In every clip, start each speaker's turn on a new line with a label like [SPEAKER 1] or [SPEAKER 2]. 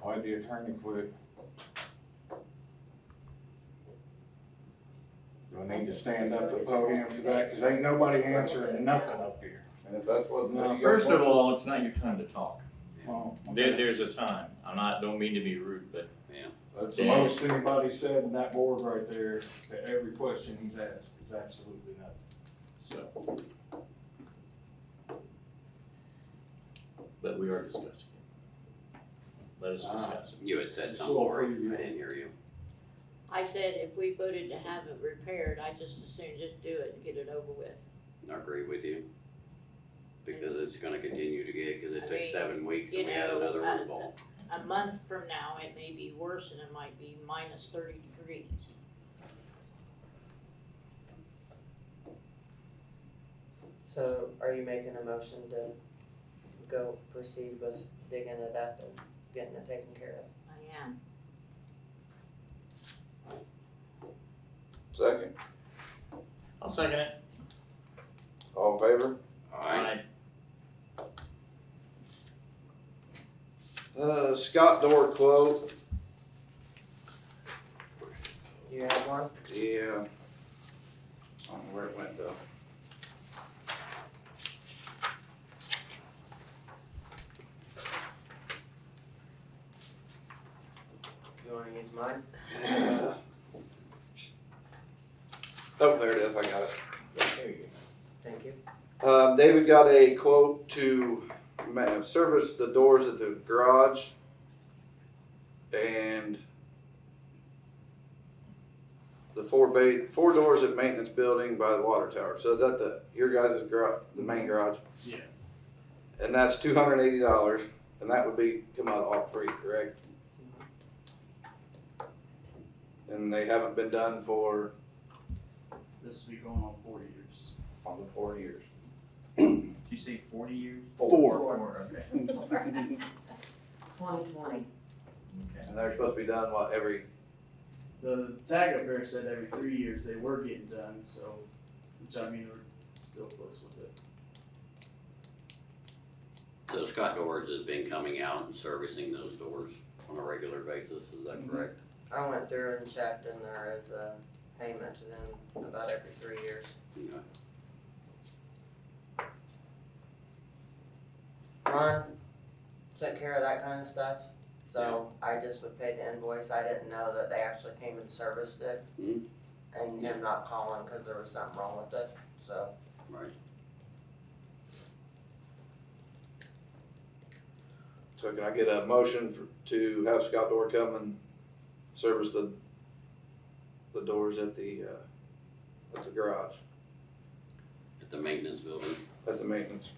[SPEAKER 1] Why'd the attorney quit? Do I need to stand up at the podium for that? Cause ain't nobody answering nothing up here.
[SPEAKER 2] And if that's what.
[SPEAKER 1] No,
[SPEAKER 3] First of all, it's not your time to talk.
[SPEAKER 1] Well,
[SPEAKER 3] There, there's a time. I'm not, don't mean to be rude, but
[SPEAKER 1] That's the most anybody said in that board right there, to every question he's asked, is absolutely nothing.
[SPEAKER 3] so. But we are discussing it. Let us discuss it.
[SPEAKER 4] You had said
[SPEAKER 1] Just
[SPEAKER 4] something,
[SPEAKER 1] a little
[SPEAKER 4] Lori,
[SPEAKER 1] preview.
[SPEAKER 4] I didn't hear you.
[SPEAKER 5] I said if we voted to have it repaired, I just as soon just do it and get it over with.
[SPEAKER 4] I agree with you. Because it's gonna continue to get, cause
[SPEAKER 5] I
[SPEAKER 4] it took
[SPEAKER 5] mean,
[SPEAKER 4] seven weeks and
[SPEAKER 5] you
[SPEAKER 4] we had
[SPEAKER 5] know,
[SPEAKER 4] another
[SPEAKER 5] uh,
[SPEAKER 4] root ball.
[SPEAKER 5] A month from now, it may be worse and it might be minus thirty degrees.
[SPEAKER 6] So are you making a motion to go proceed with digging it up and getting it taken care of?
[SPEAKER 5] I am.
[SPEAKER 2] Second,
[SPEAKER 3] I'll second it.
[SPEAKER 2] all in favor?
[SPEAKER 4] Alright,
[SPEAKER 2] Uh, Scott door quote,
[SPEAKER 6] Do you have one?
[SPEAKER 2] yeah. I don't know where it went though.
[SPEAKER 6] Do you wanna use mine?
[SPEAKER 2] Oh, there it is, I got it.
[SPEAKER 3] There you go.
[SPEAKER 6] Thank you.
[SPEAKER 2] Um, David got a quote to ma- service the doors at the garage and the four bay, four doors at maintenance building by the water tower. So is that the, your guys' garage, the main garage?
[SPEAKER 3] Yeah.
[SPEAKER 2] And that's two hundred and eighty dollars, and that would be, come out all three, correct? And they haven't been done for?
[SPEAKER 7] This will be going on four years.
[SPEAKER 2] On the four years.
[SPEAKER 3] Did you say forty years?
[SPEAKER 7] Four.
[SPEAKER 3] Four, okay.
[SPEAKER 6] Twenty twenty.
[SPEAKER 3] Okay.
[SPEAKER 2] And they're supposed to be done, what, every,
[SPEAKER 7] The tag up there said every three years they were getting done, so, which I mean, we're still close with it.
[SPEAKER 4] so Scott Doors has been coming out and servicing those doors on a regular basis, is that
[SPEAKER 1] Mm-hmm.
[SPEAKER 7] Mhm.
[SPEAKER 4] correct?
[SPEAKER 6] I went through and checked and there is a payment to them about every three years.
[SPEAKER 4] Yeah.
[SPEAKER 6] Ron took care of that kind of stuff, so I just would pay the invoice, I didn't know that they actually came and serviced it.
[SPEAKER 4] Mhm.
[SPEAKER 6] And him not calling, cause there was something wrong with it, so.
[SPEAKER 4] Right,
[SPEAKER 2] so can I get a motion for, to have Scott Door come and service the, the doors at the, uh, at the garage,
[SPEAKER 4] at the maintenance building,
[SPEAKER 2] at the maintenance,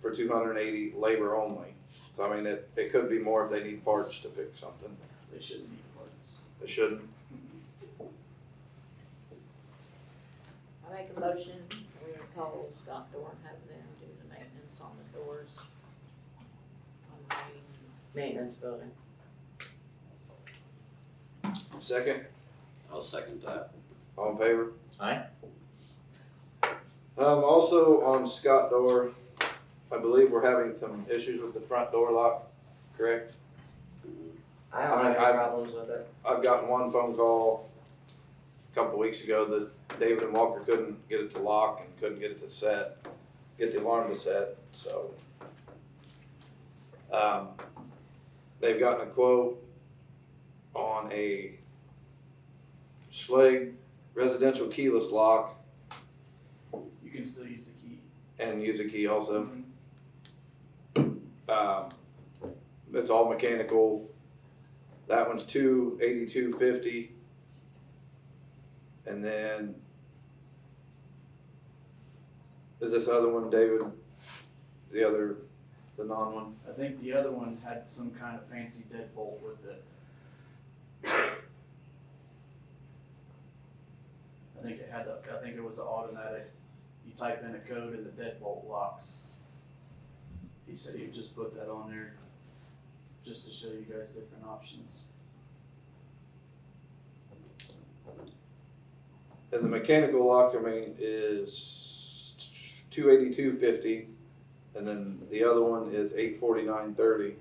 [SPEAKER 2] for two hundred and eighty labor only. So I mean, it, it could be more if they need parts to fix something,
[SPEAKER 7] They shouldn't need parts.
[SPEAKER 2] they shouldn't.
[SPEAKER 5] I make a motion, we call Scott Door and have them do the maintenance on the doors. On the main
[SPEAKER 6] Maintenance building.
[SPEAKER 2] Second,
[SPEAKER 4] I'll second that.
[SPEAKER 2] All in favor?
[SPEAKER 3] Aye.
[SPEAKER 2] Um, also on Scott door, I believe we're having some issues with the front door lock, correct?
[SPEAKER 4] Mhm.
[SPEAKER 6] I don't have
[SPEAKER 2] I- I-
[SPEAKER 6] any problems with it.
[SPEAKER 2] I've gotten one phone call a couple weeks ago that David and Walker couldn't get it to lock and couldn't get it to set, get the alarm to set, so. Um, they've gotten a quote on a Schlage residential keyless lock
[SPEAKER 7] You can still use the key.
[SPEAKER 2] and use a key also. Um, it's all mechanical. That one's two eighty-two fifty. And then is this other one, David? The other, the non one?
[SPEAKER 7] I think the other one had some kind of fancy deadbolt with it. I think it had, a- I think it was an automatic, you type in a code and the deadbolt locks. He said he'd just put that on there, just to show you guys different options.
[SPEAKER 2] And the mechanical lock, I mean, is two eighty-two fifty. And then the other one is eight forty-nine thirty.